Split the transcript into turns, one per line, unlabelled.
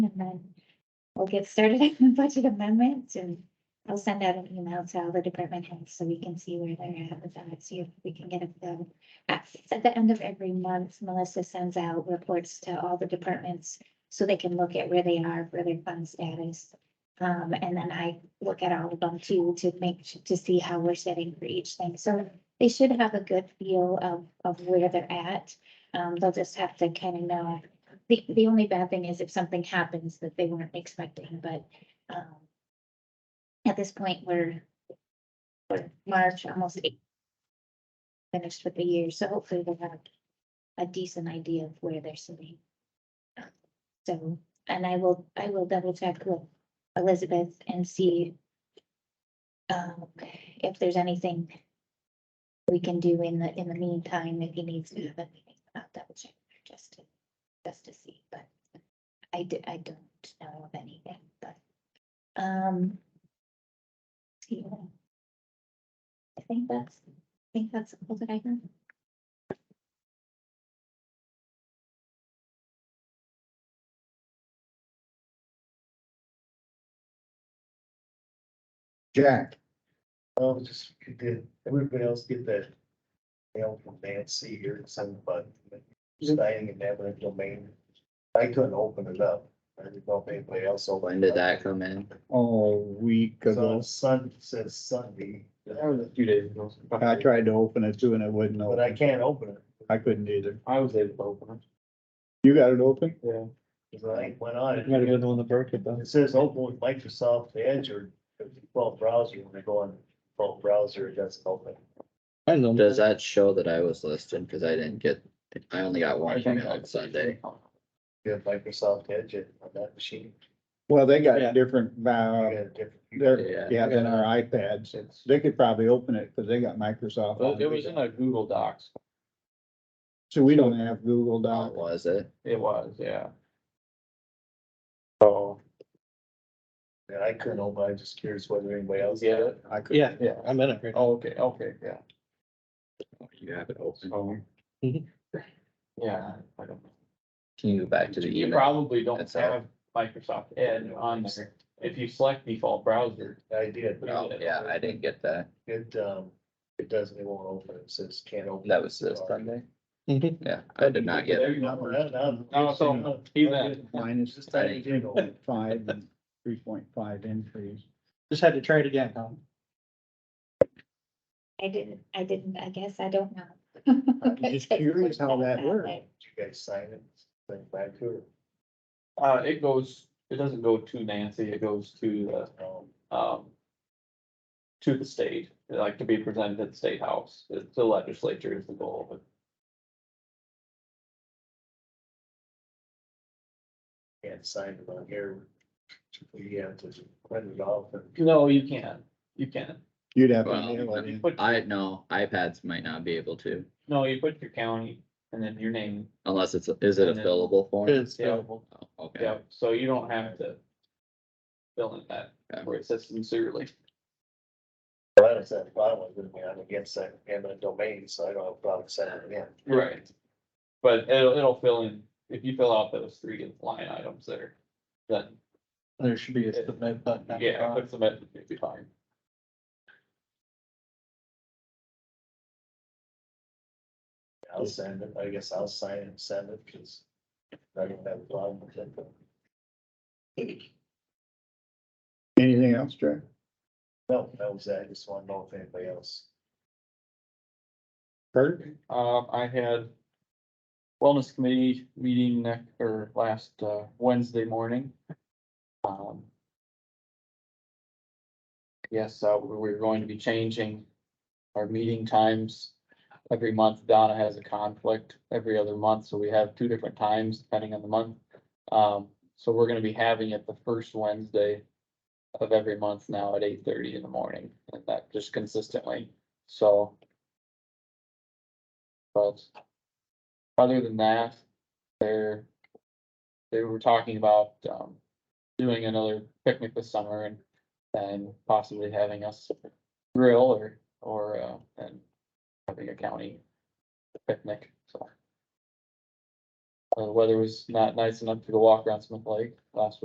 And then we'll get started on the budget amendments and I'll send out an email to all the department heads so we can see where they're at with that, see if we can get them. At at the end of every month, Melissa sends out reports to all the departments so they can look at where they are for their fund status. Um, and then I look at all of them too, to make, su- to see how we're setting for each thing. So they should have a good feel of, of where they're at. Um, they'll just have to kind of know. The, the only bad thing is if something happens that they weren't expecting, but, um, at this point, we're, we're March, almost eight. Finished with the year, so hopefully they'll have a decent idea of where they're sitting. So, and I will, I will double check with Elizabeth and see um, if there's anything we can do in the, in the meantime, if he needs to have a meeting, I'll double check just to, just to see, but I do, I don't know of anything, but, um, yeah. I think that's, I think that's all that I heard.
Jack. Oh, just, did everybody else get that mail from Nancy here and send the button? Staying in eminent domain. I couldn't open it up. I didn't know if anybody else. opened
When
it
did
up.
that come in?
Oh, a week
So
ago.
it's Sun, says Sunday,
That was a few days ago.
I tried to open it too and it wouldn't
but
open.
I can't open it.
I couldn't either.
I was able to open
You got it open?
it. Yeah.
Cause I went on
You gotta
it.
go on the break it though.
It says open with Microsoft Edge or default browser. When I go on default browser, it doesn't open.
I know.
Does that show that I was listed? Cause I didn't get, I only got one email on Sunday.
You have Microsoft Edge it on that machine.
Well, they
Yeah.
got different,
You
uh,
got a different.
Yeah.
they're, yeah, than our iPads.
It's-
They could probably open it because they got Microsoft.
Well, It was
on
in
it.
a Google Docs.
So we don't have Google
Oh,
Docs.
was it?
It was, yeah. So,
Yeah, I couldn't open, it. I'm just curious whether anybody else.
Yeah.
had it.
I could.
Yeah, yeah, I'm in it right now.
oh, okay, okay, yeah.
You have it open.
So.
Mhm.
Yeah. I don't-
Can you go back to the
You
email?
probably don't
That's all.
have Microsoft Edge on there. If you select default browser,
I did.
Oh, yeah, I didn't get that.
It, um, it doesn't, it won't open, it says can't open.
That was this Sunday? Yeah, I did not get it.
there you
No,
go.
no, no.
No, it's open.
No,
Even-
Minus
This time it did open.
five and three point five increase.
Just had to try it again, Tom.
I didn't, I didn't, I guess, I don't know.
I'm just curious how that works.
Did you guys sign it? Send it back to
Uh, it goes, it doesn't go to Nancy, it goes to
her. Um,
the, um. To the state, like to be presented at the state house, It's the legislature is the goal of it.
Can't sign it on here. You have to print it off and.
No, you can, you can.
You'd have to
Well,
mail it
You
in.
put,
I, no, iPads might not be able to,
no, you put your county and then your name,
unless it's, is it a fillable form?
It's
uh,
yeah,
available.
Oh, Okay,
yeah, so you don't have to. Fill in that,
Okay.
where it says sincerely,
Well, that's that bottom one, gonna be on against that eminent domain, so I don't have a problem sending it
right? But it'll, it'll fill in, if you fill out those three line items there, then,
There should be a submit button. at the
yeah,
bottom.
put some, it'd be fine.
in. I'll send it, I guess I'll sign it and send it, cause I don't have a problem with it.
Anything else, Jack?
No, that was, it. I just wanna know if anybody else.
Kurt?
Um, I had wellness committee meeting next, or last, uh, Wednesday morning. Um. Yes, uh, we- we're going to be changing our meeting times. Every month Donna has a conflict every other month, so we have two different times depending on the month. Um, so we're gonna be having it the first Wednesday of every month now at eight thirty in the morning, and that just consistently, so. But other than that, they're, they were talking about, um, doing another picnic this summer and, and possibly having us grill or, or, uh, and having a county picnic, so. Uh, The weather was not nice enough to go walk around Smith Lake last